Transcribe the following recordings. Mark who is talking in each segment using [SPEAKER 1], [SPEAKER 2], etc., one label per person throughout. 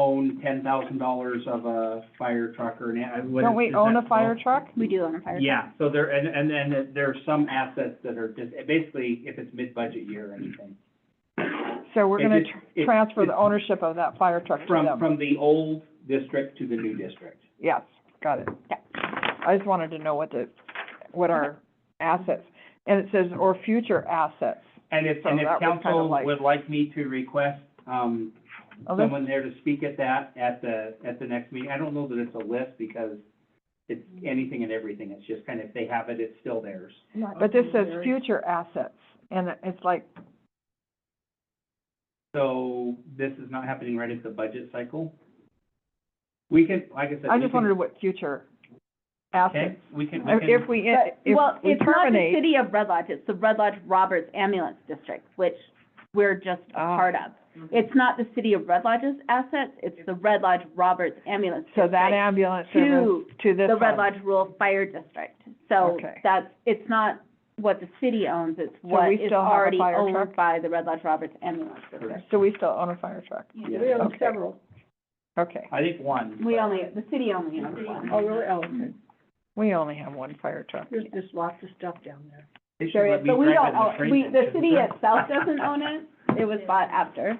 [SPEAKER 1] own ten thousand dollars of a fire truck or an, I what
[SPEAKER 2] Don't
[SPEAKER 1] is-
[SPEAKER 2] we
[SPEAKER 1] is
[SPEAKER 2] own
[SPEAKER 1] that-
[SPEAKER 2] a fire truck?
[SPEAKER 3] We do own a fire truck.
[SPEAKER 1] Yeah, so there, and, and then there's some assets that are just, basically, if it's mid-budget year or anything.
[SPEAKER 2] So we're
[SPEAKER 1] It
[SPEAKER 2] gonna
[SPEAKER 1] is-
[SPEAKER 2] tr-
[SPEAKER 1] it-
[SPEAKER 2] transfer the
[SPEAKER 1] it-
[SPEAKER 2] ownership of that fire truck to
[SPEAKER 1] From,
[SPEAKER 2] them.
[SPEAKER 1] from the old district to the new district.
[SPEAKER 2] Yes, got it.
[SPEAKER 3] Yeah.
[SPEAKER 2] I just wanted to know what the, what our assets, and it says, or future assets.
[SPEAKER 1] And if,
[SPEAKER 2] So
[SPEAKER 1] and if
[SPEAKER 2] that was kind of
[SPEAKER 1] council
[SPEAKER 2] like-
[SPEAKER 1] would like me to request, um,
[SPEAKER 2] Oh, this-
[SPEAKER 1] someone there to speak at that, at the, at the next meeting, I don't know that it's a list because it's anything and everything, it's just kind of, if they have it, it's still theirs.
[SPEAKER 2] But this says future assets, and it- it's like,
[SPEAKER 1] So this is not happening right at the budget cycle. We can, like I said.
[SPEAKER 2] I
[SPEAKER 1] we
[SPEAKER 2] just
[SPEAKER 1] can-
[SPEAKER 2] wondered what future
[SPEAKER 1] Okay,
[SPEAKER 2] assets.
[SPEAKER 1] we can, we can,
[SPEAKER 2] If we,
[SPEAKER 3] But- Well,
[SPEAKER 2] if we
[SPEAKER 3] it's not the
[SPEAKER 2] terminate,
[SPEAKER 3] city of Red Lodge, it's the Red Lodge Roberts Ambulance District, which we're just a
[SPEAKER 2] Ah.
[SPEAKER 3] part of.
[SPEAKER 4] Mm-hmm.
[SPEAKER 3] It's not the city of Red Lodge's assets, it's the Red Lodge Roberts Ambulance
[SPEAKER 2] so that
[SPEAKER 3] District
[SPEAKER 2] ambulance service
[SPEAKER 3] to
[SPEAKER 2] to this
[SPEAKER 3] the Red
[SPEAKER 2] one.
[SPEAKER 3] Lodge Rural Fire District. So
[SPEAKER 2] Okay.
[SPEAKER 3] that's, it's not what the city owns, it's what
[SPEAKER 2] we
[SPEAKER 3] is
[SPEAKER 2] still have a
[SPEAKER 3] already
[SPEAKER 2] fire truck?
[SPEAKER 3] owned by the Red Lodge Roberts Ambulance District.
[SPEAKER 2] So we still own a fire truck,
[SPEAKER 1] Yeah. We
[SPEAKER 2] own Okay.
[SPEAKER 4] several.
[SPEAKER 2] okay.
[SPEAKER 1] I think one.
[SPEAKER 3] We
[SPEAKER 1] but-
[SPEAKER 3] only, the city only owns one.
[SPEAKER 4] Oh, really? Oh, okay.
[SPEAKER 2] We only have one fire truck.
[SPEAKER 4] There's just lots of stuff down there.
[SPEAKER 1] They should
[SPEAKER 3] There
[SPEAKER 1] let
[SPEAKER 3] is,
[SPEAKER 1] me
[SPEAKER 3] but we
[SPEAKER 1] drive
[SPEAKER 3] don't
[SPEAKER 1] in the
[SPEAKER 3] own,
[SPEAKER 1] freight
[SPEAKER 3] we,
[SPEAKER 1] then,
[SPEAKER 3] the
[SPEAKER 1] 'cause
[SPEAKER 3] city
[SPEAKER 1] they're-
[SPEAKER 3] itself doesn't own it, it was bought after.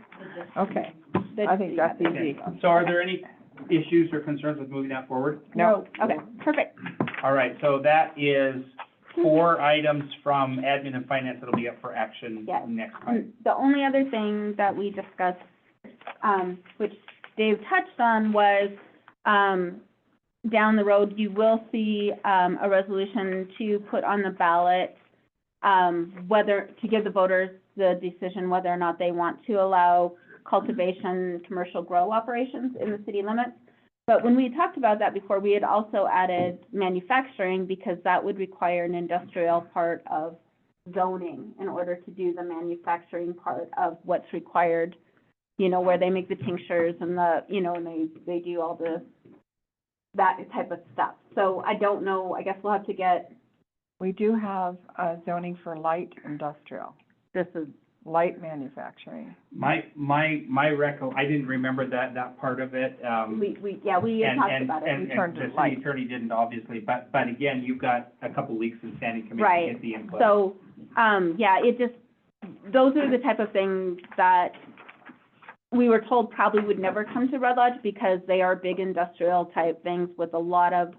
[SPEAKER 2] Okay,
[SPEAKER 3] The
[SPEAKER 2] I think
[SPEAKER 3] city
[SPEAKER 2] that's
[SPEAKER 3] got it.
[SPEAKER 2] easy.
[SPEAKER 1] Okay. So are there any issues or concerns with moving that forward?
[SPEAKER 2] No,
[SPEAKER 3] Okay, perfect.
[SPEAKER 1] All right, so that is four items from admin and finance that'll be up for action
[SPEAKER 3] Yes.
[SPEAKER 1] next time.
[SPEAKER 3] The only other thing that we discussed, um, which Dave touched on was, um, down the road, you will see, um, a resolution to put on the ballot, um, whether, to give the voters the decision whether or not they want to allow cultivation, commercial grow operations in the city limits. But when we talked about that before, we had also added manufacturing because that would require an industrial part of zoning in order to do the manufacturing part of what's required, you know, where they make the tinctures and the, you know, and they, they do all the, that type of stuff. So I don't know, I guess we'll have to get,
[SPEAKER 2] we do have, uh, zoning for light industrial,
[SPEAKER 3] this is,
[SPEAKER 2] light manufacturing.
[SPEAKER 1] My, my, my recol, I didn't remember that, that part of it, um.
[SPEAKER 3] we, we, yeah, we had
[SPEAKER 1] and-
[SPEAKER 3] talked
[SPEAKER 1] and-
[SPEAKER 3] about it.
[SPEAKER 1] And,
[SPEAKER 2] We
[SPEAKER 1] and
[SPEAKER 2] turned
[SPEAKER 1] the
[SPEAKER 2] it
[SPEAKER 1] city
[SPEAKER 2] light.
[SPEAKER 1] attorney didn't obviously, but, but again, you've got a couple weeks in standing committee
[SPEAKER 3] Right.
[SPEAKER 1] to get the input.
[SPEAKER 3] So, um, yeah, it just, those are the type of things that we were told probably would never come to Red Lodge because they are big industrial type things with a lot of,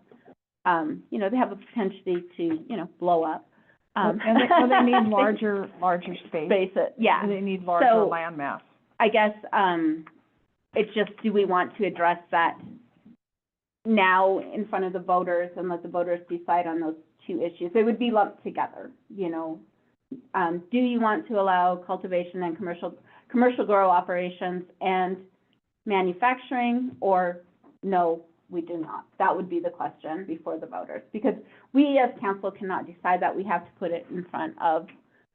[SPEAKER 3] um, you know, they have a potential to, you know, blow up. Um,
[SPEAKER 2] And they, well, they need larger, larger space.
[SPEAKER 3] Space it, yeah.
[SPEAKER 2] They need larger
[SPEAKER 3] So-
[SPEAKER 2] land mass.
[SPEAKER 3] I guess, um, it's just, do we want to address that now in front of the voters and let the voters decide on those two issues? They would be lumped together, you know? Um, do you want to allow cultivation and commercial, commercial grow operations and manufacturing? Or no, we do not? That would be the question before the voters. Because we as council cannot decide that. We have to put it in front of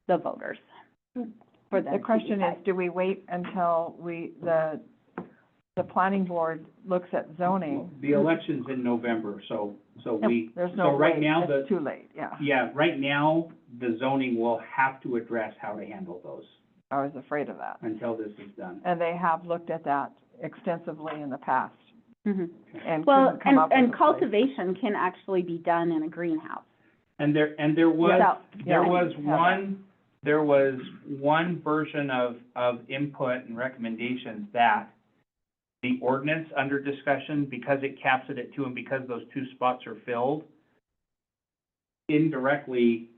[SPEAKER 3] the voters for them
[SPEAKER 2] Hmm. The
[SPEAKER 3] to
[SPEAKER 2] question is,
[SPEAKER 3] decide.
[SPEAKER 2] do we wait until we, the, the planning board looks at zoning?
[SPEAKER 1] The election's in November, so, so we,
[SPEAKER 2] There's no
[SPEAKER 1] so right
[SPEAKER 2] way,
[SPEAKER 1] now, the,
[SPEAKER 2] it's too late, yeah.
[SPEAKER 1] yeah, right now, the zoning will have to address how to handle those
[SPEAKER 2] I was afraid of that.
[SPEAKER 1] until this is done.
[SPEAKER 2] And they have looked at that extensively in the past
[SPEAKER 3] Mhm.
[SPEAKER 2] and
[SPEAKER 3] Well,
[SPEAKER 2] couldn't come
[SPEAKER 3] and,
[SPEAKER 2] up with
[SPEAKER 3] and
[SPEAKER 2] a place.
[SPEAKER 3] cultivation can actually be done in a greenhouse.
[SPEAKER 1] And there, and there was,
[SPEAKER 3] So,
[SPEAKER 1] There
[SPEAKER 2] Yeah.
[SPEAKER 1] was
[SPEAKER 2] Yeah.
[SPEAKER 1] one, there was one version of, of input and recommendations that the ordinance under discussion, because it caps it at two and because those two spots are filled, indirectly,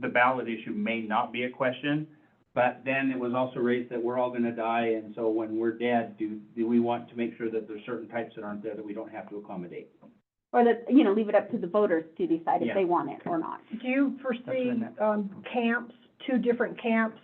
[SPEAKER 1] the ballot issue may not be a question, but then it was also raised that we're all gonna die, and so when we're dead, do, do we want to make sure that there's certain types that aren't there that we don't have to accommodate?
[SPEAKER 3] or that, you know, leave it up to the voters to decide if
[SPEAKER 1] Yeah.
[SPEAKER 3] they want it or not.
[SPEAKER 4] Do you foresee,
[SPEAKER 1] That's what
[SPEAKER 4] um, camps, two different camps,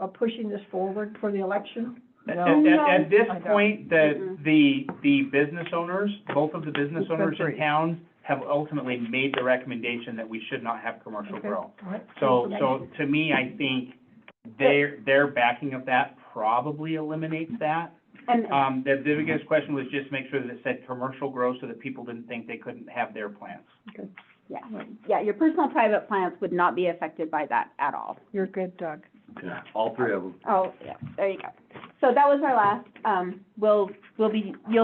[SPEAKER 4] uh, pushing this forward for the election?
[SPEAKER 1] At,
[SPEAKER 2] No.
[SPEAKER 1] at- at- at this
[SPEAKER 2] I don't.
[SPEAKER 1] point, the,
[SPEAKER 3] Mm-mm.
[SPEAKER 1] the, the business owners, both of the business
[SPEAKER 2] It's been
[SPEAKER 1] owners in
[SPEAKER 2] three.
[SPEAKER 1] towns have ultimately made the recommendation that we should not have commercial
[SPEAKER 4] Okay.
[SPEAKER 1] grow.
[SPEAKER 4] All right.
[SPEAKER 1] So, so to me, I think their, their backing of that probably eliminates that.
[SPEAKER 3] And,
[SPEAKER 2] Uh,
[SPEAKER 1] Um, the the biggest question was just make sure that it said commercial grow so that people didn't think they couldn't have their plants.
[SPEAKER 3] yeah, yeah, your personal private plans would not be affected by that at all.
[SPEAKER 2] You're good, Doug.
[SPEAKER 1] Yeah, all three of them.
[SPEAKER 3] Oh, yeah, there you go. So that was our last, um, we'll, we'll be, you'll